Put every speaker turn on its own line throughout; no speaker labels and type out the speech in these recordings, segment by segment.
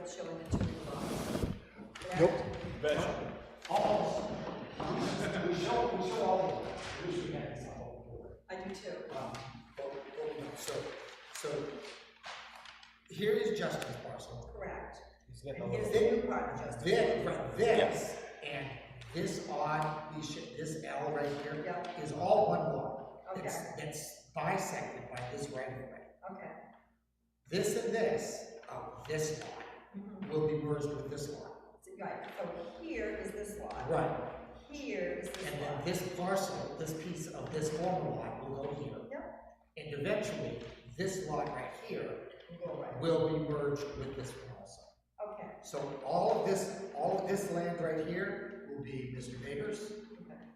it's showing the two o'clock.
Nope.
We show, we show all the, we should get it.
I do too.
Um, but- but we don't. So, so here is Justin's parcel.
Correct. And here's the
Then,
new part of Justin.
then, right, this, and this odd, piece shit, this L right here,
Yeah.
is all one lot.
Okay.
It's, it's bisected by this right of way.
Okay.
This and this, of this lot,
Mhm.
will be merged with this lot.
So, Right, so here is this lot.
Right.
Here is this
And then
lot.
this parcel, this piece of this former lot will go here. And eventually, this lot right here
Go right.
will be merged with this one also.
Okay,
So all of this, all of this land right here will be Mr. Vader's.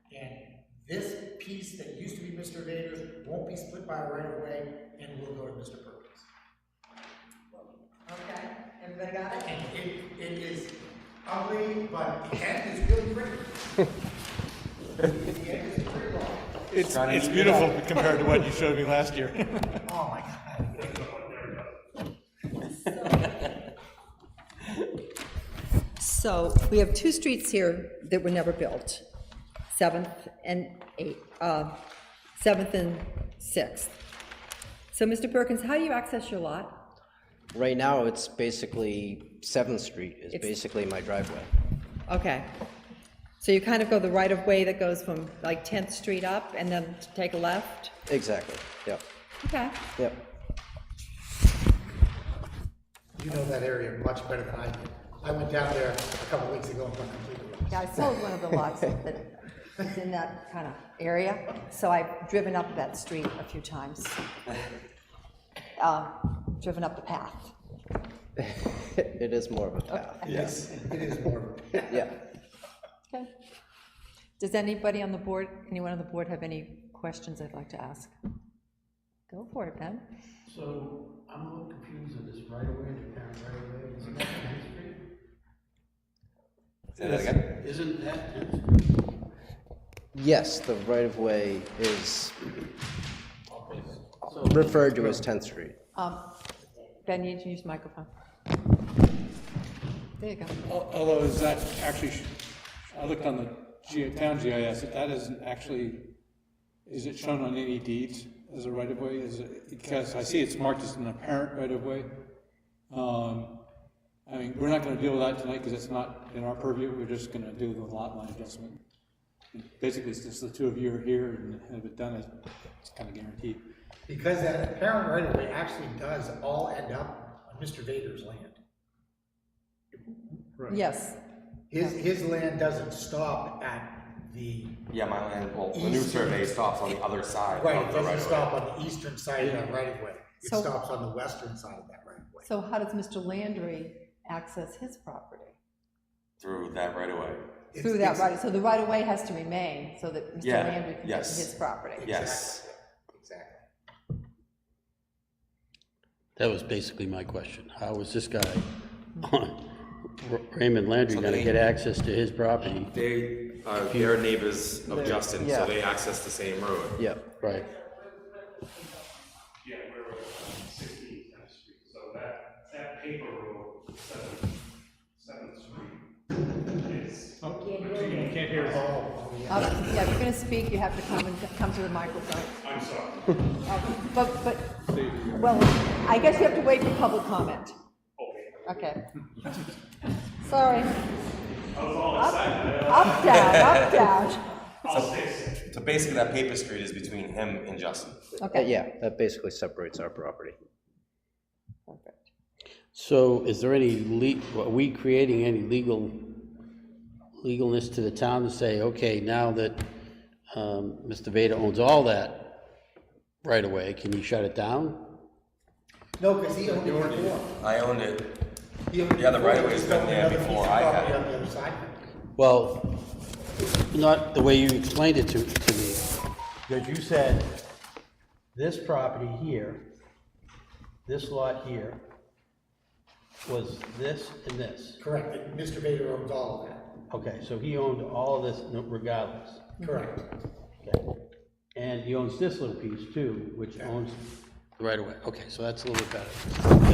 okay,
And this piece that used to be Mr. Vader's won't be split by right of way and will go to Mr. Perkins.
okay. Everybody got it?
And it, it is ugly, but the end is really pretty. The end is pretty long.
It's, it's beautiful compared to what you showed me last year.
Oh my God.
So we have two streets here that were never built, 7th and 8th, uh, 7th and 6th. So, Mr. Perkins, how do you access your lot?
Right now, it's basically, Seventh Street is
It's-
basically my driveway.
Okay. So you kind of go the right-of-way that goes from like 10th Street up and then take a left?
Exactly, yep,
Okay.
yep.
You know that area much better than I do. I went down there a couple weeks ago and went completely lost.
Yeah, I sold one of the lots that was in that kind of area, so I've driven up that street a few times. Uh, Driven up the path.
It is more of a path,
Yes.
It is more of a
yeah.
Okay. Does anybody on the board, anyone on the board have any questions I'd like to ask? Go for it, Ben.
So I'm a little confused on this right away, the parent right away, isn't that Main Street?
Say that again?
Isn't that,
Yes, the right-of-way is referred to as Tenth Street.
Um, Ben, you need to use the microphone. There you go.
Al- Although is that actually, sh- I looked on the G- town GIS, that isn't actually, is it shown on any deeds as a right-of-way? Is it, because I see it's marked as an apparent right-of-way. Um, I mean, we're not gonna deal with that tonight because it's not in our purview, we're just gonna do the lot line adjustment. Basically, it's just the two of you are here and have it done, it's kinda guaranteed.
Because that apparent right of way actually does all end up on Mr. Vader's land.
Yes,
His, his land doesn't stop at the,
Yeah, my land, well, the new
East-
survey stops on the other side
right,
of
it
the
doesn't
right of way.
stop on the eastern side of that right of way. It
So-
stops on the western side of that right of way.
so how does Mr. Landry access his property?
Through that right away.
It's-
Through that
it's-
right, so the right-of-way has to remain so that Mr.
Yeah,
Landry can get to
yes.
his property.
Yes.
Exactly.
that was basically my question. How is this guy, Raymond Landry, gonna get access to his property?
They, uh, they're neighbors of Justin,
yeah.
so they access the same road.
Yep.
Right.
Yeah, we're sixteen Tenth Street, so that, that paper road, Seventh, Seventh Street is. You can't hear us.
Um, Yeah, if you're gonna speak, you have to come and, come to the microphone.
I'm sorry.
Uh, But, but, well, I guess you have to wait for public comment. Okay. Sorry.
I was all excited. I-
Up, down, up, down.
I'll stay safe.
So basically, that paper street is between him and Justin.
Uh,
Okay.
Yeah, that basically separates our property.
Perfect.
So is there any le, are we creating any legal, legalness to the town to say, okay, now that, um, Mr. Vader owns all that right away, can you shut it down?
No, because he owned it before.
I owned it.
He owned it
Yeah, the
before.
right of way's
He
been
owned
there
another piece
before
of
I had
property
it.
On the other side.
Well, not the way you explained it to, to me. Because you said, this property here, this lot here, was this and this.
Correct, and Mr. Vader owns all of that.
Okay, so he owned all of this regardless.
Mm-hmm.
Correct.
Okay. And he owns this little piece too, which owns. Right away, okay, so that's a little bit better.